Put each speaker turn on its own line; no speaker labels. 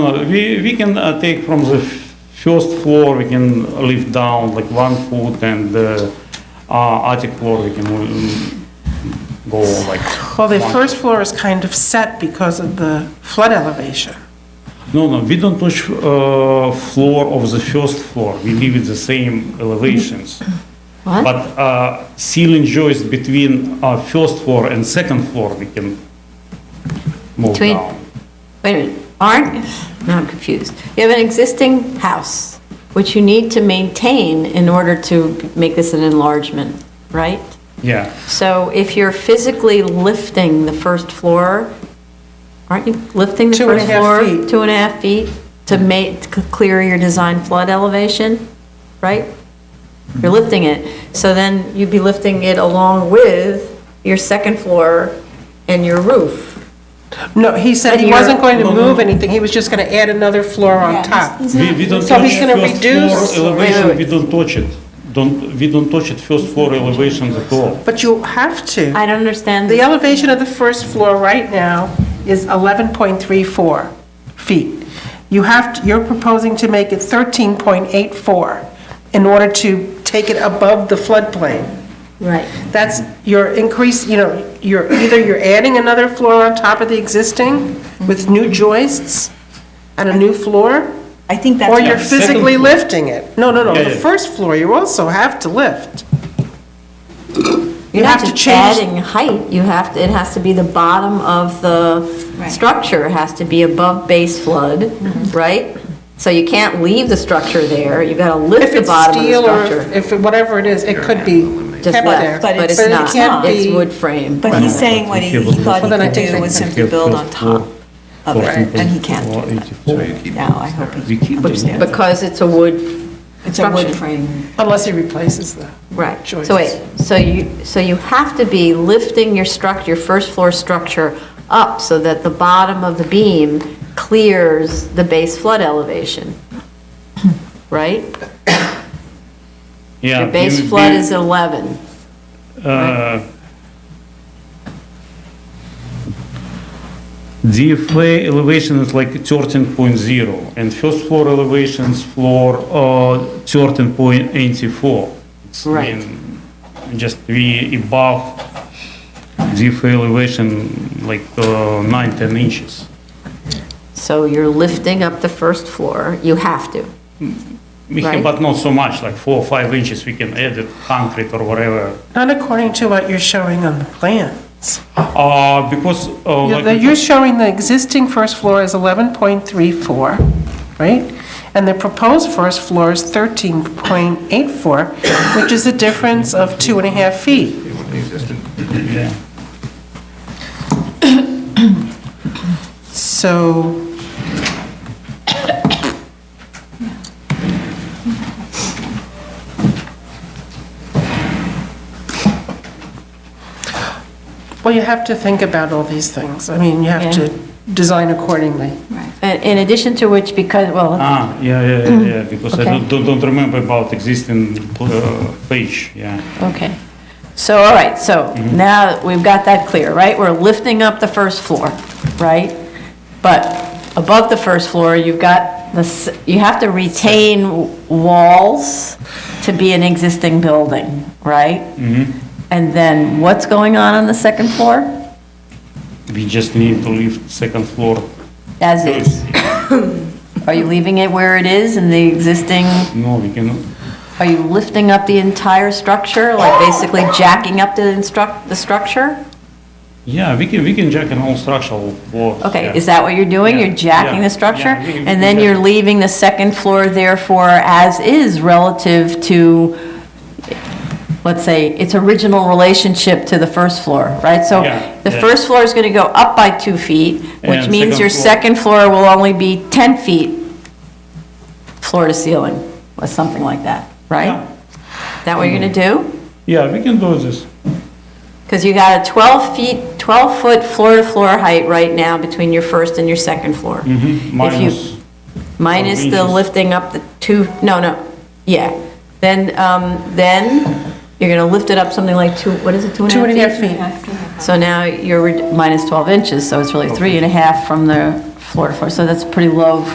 Uh, We, we can uh, take from the f- first floor, we can lift down like one foot and the uh, attic floor, we can um, go like.
Well, the
one-
first floor is kind of set because of the flood elevation.
No, no, we don't touch uh, floor of the first floor. We leave it the same elevations.
Mm-hmm.
What?
But uh, ceiling joist between uh, first floor and second floor, we can move
Between-
down.
Wait a minute, aren't, now I'm confused. You have an existing house, which you need to maintain in order to make this an enlargement, right?
Yeah.
So if you're physically lifting the first floor, aren't you lifting the
Two and a
first
half
floor?
feet.
Two and a half feet to make, to clear your design flood elevation, right? You're lifting it, so then you'd be lifting it along with your second floor and your roof.
No, he said he
And you're-
wasn't going to move anything, he was just going to add another floor on top.
We, we don't
So
touch
he's gonna
first
reduce-
floor elevation,
Wait, wait,
we
wait.
don't touch it. Don't, we don't touch it first floor elevation at all.
But you have to.
I don't understand.
The elevation of the first floor right now is 11.34 feet. You have, to- you're proposing to make it 13.84 in order to take it above the floodplain.
Right.
That's your increase, you know, you're, either you're adding another floor on top of the existing with new joists and a new floor,
I think that's.
or you're
Yeah, second
physically
floor.
lifting it. No, no, no,
Yeah,
the
yeah.
first floor, you also have to lift.
You're not
have to
just
change-
adding height, you have, to. it has to be the bottom of the
Right. Mm-hmm.
structure, It has to be above base flood, right? So you can't leave the structure there, you gotta lift
If
the
it's
bottom of the
steel or
structure.
if, it- whatever it is, it could be
Just
kept there.
left, but it's
it
not,
can't
it's
be-
wood frame.
But he's saying what he he thought he
Well, then I
could
think
do
they
was
can
simply build on top of it, and he can't do that.
do
Now, I hope he understands.
Because it's a wood,
It's a wood
Construction.
frame.
Unless he replaces the,
right.
Joists.
So wait, so you, so you have to be lifting your structure, your first floor structure up so that the bottom of the beam clears the base flood elevation, right?
Yeah.
Your base
we-
flood
we-
is 11.
uh, DFA elevation is like 13.0 and first floor elevations floor uh, 13.84. It's
Right.
mean, Just we above DFA elevation like uh, 9, 10 inches.
So you're lifting up the first floor, you have to.
We can-
Right.
But not so much, like 4 or 5 inches we can add it concrete or whatever.
not according to what you're showing on the plans.
Uh, Because uh,
You're
like
the- you're showing the existing first floor is 11.34, right? And the proposed first floor is 13.84, which is a difference of two and a half feet. So... Well, you have to think about all these things. I mean, you have
Yeah.
to design accordingly.
And In addition to which, because, well,
Ah, yeah, yeah, yeah, yeah, because I
Mm-hmm. Okay.
don't, don't- don't remember about existing uh, page, yeah.
okay. So, all right, so now that we've got that clear, right? We're lifting up the first floor, right? But above the first floor, you've got the, s- you have to retain w- walls to be an existing building, right? And then what's going on on the second floor?
We just need to leave second floor.
As is. Are you leaving it where it is in the existing
No, we cannot.
Are you lifting up the entire structure, like basically jacking up the instruct, the structure?
Yeah, we can, we can jack an all structural floor.
Okay, is that what you're doing?
Yeah,
You're jacking
yeah,
the structure?
yeah, we-
And then you're leaving the second floor therefore as is relative to, let's say, its original relationship to the first floor, right? So
Yeah,
the
yeah.
first floor is going to go up by two feet, which
And
means
second
your
floor.
second floor will only be 10 feet floor to ceiling, or something like that,
Yeah. Mm-hmm.
right? That what you're going to do?
Yeah, we can do this.
Because you got a 12 feet, 12-foot floor-to-floor height right now between your first and your second floor. If you-
Minus,
Minus the
inches.
lifting up the two, no, no, yeah. Then, um, then you're going to lift it up something like two, what is it, two and a half
Two and a
feet?
half feet.
So now you're re- minus 12 inches, so it's really three and a half from the floor to floor. So that's pretty low